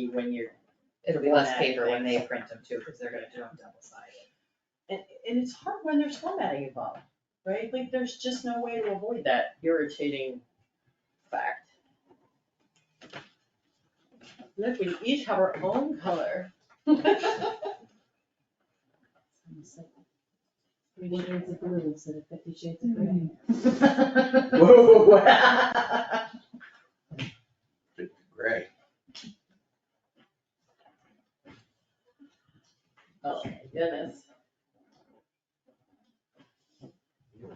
you when you're. It'll be on less that, paper When when they they, print them too, because they're gonna do them double sided. And, and it's hard when there's formatting involved, right? Like, there's just no way to avoid that irritating fact. Look, we each have our own color. Three shades of blue instead of fifty shades of gray. Whoa. Great. Oh, my goodness.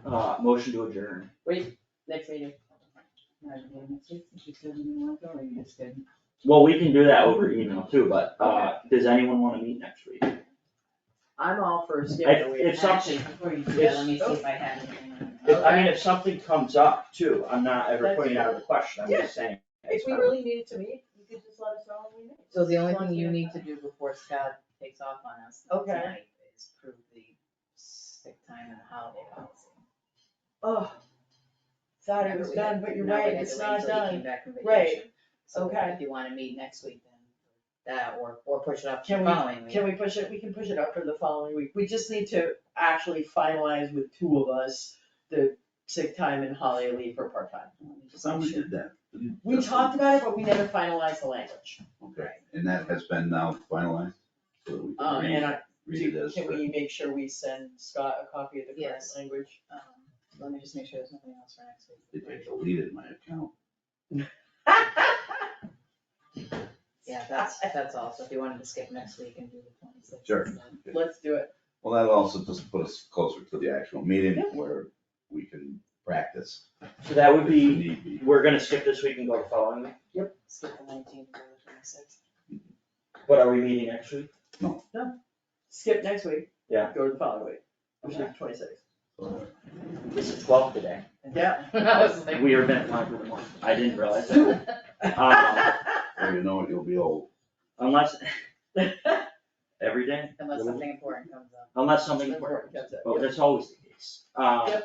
Uh, motion to adjourn. Next meeting. Well, we can do that over email too, but, uh, does anyone wanna meet next week? I'm all for skipping If, a week. if something, Actually, before you do that, let me see if I have anything. on that. if, I mean, if something comes up too, I'm not ever putting it out of the question, I'm just saying. If we really needed to meet, you could just let us know when we meet. so the only thing you need to do before Scott Takes off on us Okay. tonight is prove the sick time and holiday policy. Oh, thought it was done, but you're right, it's not done. Now we had to wait until he came back from Right. vacation. So Okay. if you wanna meet next week, then that or, or push it up to Can the we- following week. Can we push it, we can push it up for the following week, we just need to actually finalize with two of us the sick time and holiday leave for part-time. Somebody did that. We talked about it, but we never finalized the language, Okay, and that has been now finalized, so we um, can and read, I, read it as. can we make sure we send Scott a copy of the correct Yes. language? Um, Let me just make sure there's nothing else for next week. It it deleted my account. Yeah, that's, that's all, so if you wanted to skip next week and do the twenty-sixth. Sure. Let's do it, Well, that also just put us closer to the actual meeting Yeah. where we can practice. So that would if be, need be. we're gonna skip this week and go to following, week. Skip the nineteenth, go to the twenty-sixth. but are we meeting next week? skip next week. Yeah. Go to the following week, which is twenty-six, So, This is twelve today. yeah. I was like. We are meant five for the month, I didn't realize that. Um, Well, you know, it, you'll be old. Unless, every day, Unless something important comes up. unless something Important important, comes up, oh, yeah. that's always the case. Uh,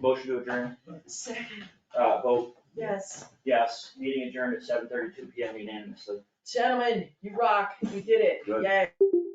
motion to adjourn, Second, uh, vote yes, yes, meeting adjourned at seven thirty-two PM unanimously. gentlemen, you rock, you did it, Good. yay.